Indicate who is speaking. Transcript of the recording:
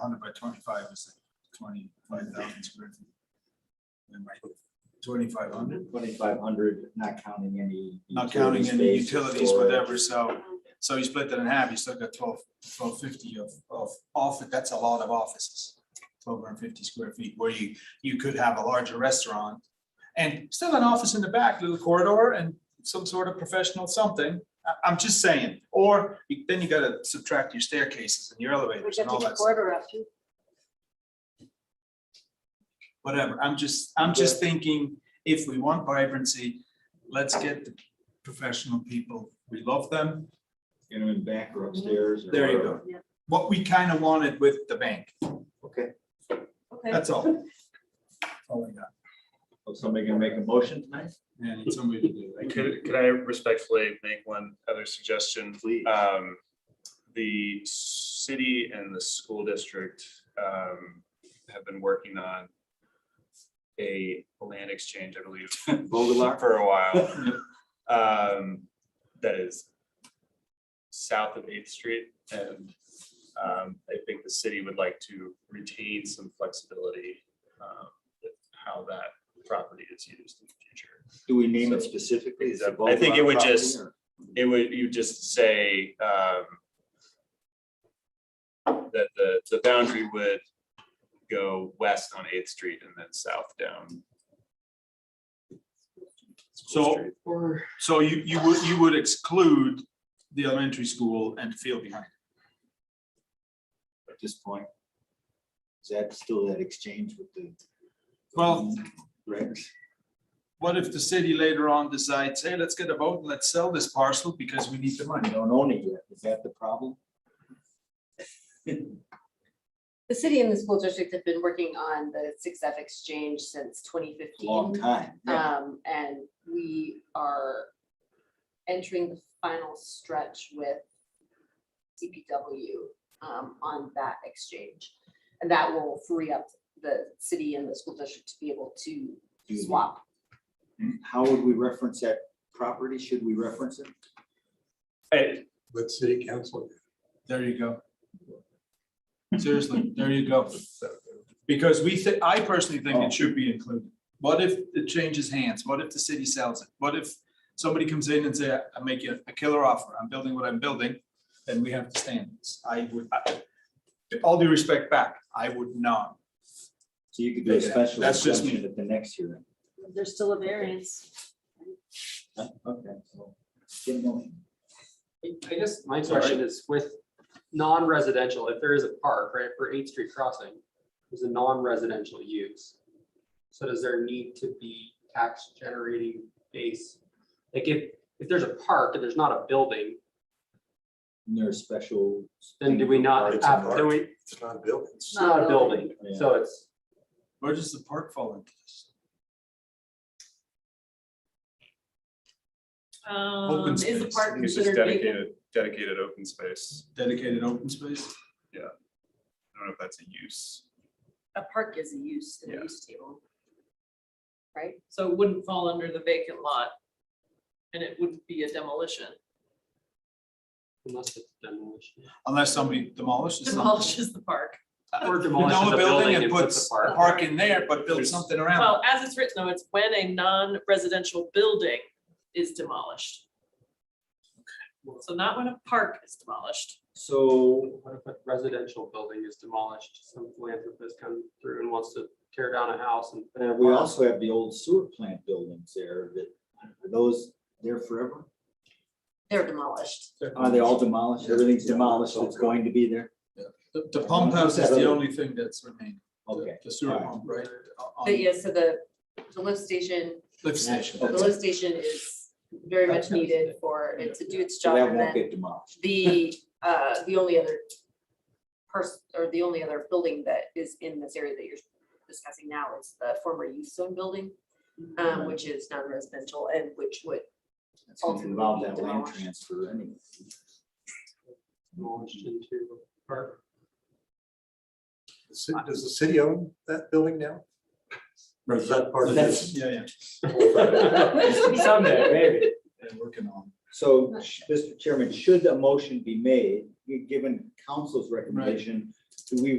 Speaker 1: hundred by twenty-five is like twenty-five thousand square feet. And like Twenty-five hundred,
Speaker 2: Twenty-five hundred, not counting any.
Speaker 1: not counting any
Speaker 2: utility space,
Speaker 1: utilities,
Speaker 2: storage.
Speaker 1: whatever, so, so you split that in half, you still got twelve, twelve fifty of, of office, that's a lot of offices. Twelve hundred fifty square feet, where you, you could have a larger restaurant and still an office in the back, little corridor and some sort of professional something. I, am just saying, or you- then you gotta subtract your staircases and your
Speaker 3: We
Speaker 1: elevators
Speaker 3: should
Speaker 1: and all
Speaker 3: have to
Speaker 1: that stuff.
Speaker 3: quarter up to.
Speaker 1: whatever, I'm just, I'm just thinking, if we want vibrancy, let's get the professional people, we love them.
Speaker 2: You know, in back or upstairs. or
Speaker 1: There you
Speaker 2: whatever.
Speaker 1: go. What we kind of wanted with the bank,
Speaker 2: Okay,
Speaker 3: Okay,
Speaker 1: that's all. That's all I got.
Speaker 2: so somebody gonna make a motion tonight?
Speaker 1: Yeah, I need somebody to do that.
Speaker 4: Could, could I respectfully make one other suggestion?
Speaker 2: Please.
Speaker 4: Um, the city and the school district, um, have been working on a land exchange, I believe,
Speaker 2: Vogelar?
Speaker 4: for a while. Um, that is south of Eighth Street and, um, I think the city would like to retain some flexibility, um, with how that property is used in the future.
Speaker 2: Do we name it specifically? Is it
Speaker 4: I think it would
Speaker 2: Vogelar property
Speaker 4: just-
Speaker 2: or-
Speaker 4: it would, you just say, um, that the, the boundary would go west on Eighth Street and then south down. School
Speaker 1: So-
Speaker 4: Street.
Speaker 1: So you, you would, you would exclude the elementary school and the field behind.
Speaker 2: At this point. Is that still that exchange with the?
Speaker 1: Well-
Speaker 2: Regs?
Speaker 1: What if the city later on decides, hey, let's get a vote, let's sell this parcel because we need the
Speaker 2: I
Speaker 1: money?
Speaker 2: don't own it yet. Is that the problem?
Speaker 3: the city and the school district have been working on the Six F Exchange since twenty fifteen.
Speaker 2: Long time.
Speaker 3: Um, and we are entering the final stretch with CPW, um, on that exchange. And that will free up the city and the school district to be able to
Speaker 2: Do that.
Speaker 3: swap.
Speaker 2: How would we reference that property? Should we reference it?
Speaker 4: I-
Speaker 5: with city council.
Speaker 1: There you go. Seriously, there you go. Because we, thi- I personally think
Speaker 4: Oh.
Speaker 1: it should be included. What if it changes hands? What if the city sells it? What if somebody comes in and say, I make you a killer offer, I'm building what I'm building, then we have to stand. I would, I- with all due respect back, I would not.
Speaker 2: So you could do a
Speaker 1: Yeah,
Speaker 2: special
Speaker 1: that's just me.
Speaker 2: exception at the next hearing.
Speaker 6: There's still a variance.
Speaker 2: Huh? Okay, so. get going.
Speaker 7: I guess my question is with non-residential, if there is a park, right, for Eighth Street Crossing, is a non-residential use. So does there need to be tax generating base? Like if, if there's a park and there's not a building,
Speaker 2: And there are special.
Speaker 7: then do we not
Speaker 5: It's a
Speaker 7: have,
Speaker 5: park.
Speaker 7: then we,
Speaker 5: It's not a building.
Speaker 7: it's not a building,
Speaker 2: Yeah.
Speaker 7: so it's,
Speaker 1: Where does the park fall into this?
Speaker 6: Um, is the
Speaker 1: space.
Speaker 6: park
Speaker 4: It's just
Speaker 6: considered vacant?
Speaker 4: dedicated, dedicated open space.
Speaker 1: Dedicated open space?
Speaker 4: I don't know if that's a use.
Speaker 6: A park is a use in
Speaker 4: Yeah.
Speaker 6: the use table,
Speaker 3: right?
Speaker 6: so it wouldn't fall under the vacant lot. And it wouldn't be a demolition.
Speaker 7: unless it's demolition.
Speaker 1: Unless somebody demolishes something.
Speaker 6: Demolishes the park.
Speaker 1: Uh,
Speaker 7: Or demolishes
Speaker 1: Demolish
Speaker 7: a
Speaker 1: the building and
Speaker 7: a
Speaker 1: puts a
Speaker 7: park.
Speaker 1: park in there, but builds
Speaker 4: There's-
Speaker 1: something around it.
Speaker 6: Well, as it's written though, it's when a non-residential building is demolished. So not when a park is demolished.
Speaker 2: So
Speaker 7: What if a residential building is demolished, some philanthropist comes through and wants to tear down a house and. put in a
Speaker 2: uh, we
Speaker 7: park?
Speaker 2: also have the old sewer plant buildings there that, are those there forever?
Speaker 3: They're demolished.
Speaker 2: Are they all demolished? Everything's demolished that's going to be there?
Speaker 1: The, the pump house is the only thing that's remaining. the-
Speaker 2: Okay.
Speaker 1: The sewer
Speaker 2: alright.
Speaker 1: pump, right? on
Speaker 3: But yeah, so the, the lift station,
Speaker 1: Lift station.
Speaker 3: the
Speaker 1: that's it.
Speaker 3: lift station is very much needed for it to do its
Speaker 2: So
Speaker 3: job.
Speaker 2: that
Speaker 3: And
Speaker 2: won't
Speaker 3: then
Speaker 2: get demolished.
Speaker 3: the, uh, the only other person, or the only other building that is in this area that you're discussing now is the former youth zone building, um, which is non-residential and which would,
Speaker 2: It's gonna
Speaker 3: ultimately
Speaker 2: involve
Speaker 3: be
Speaker 2: that land
Speaker 3: demolished.
Speaker 2: transfer anyway.
Speaker 7: Launched into a park.
Speaker 5: The city- Does the city own that building now? Or is that part of
Speaker 2: That's-
Speaker 5: this?
Speaker 1: Yeah, yeah,
Speaker 7: Someday, maybe.
Speaker 1: they're working on.
Speaker 2: So, sh- Mr. Chairman, should a motion be made, given council's recommendation, do we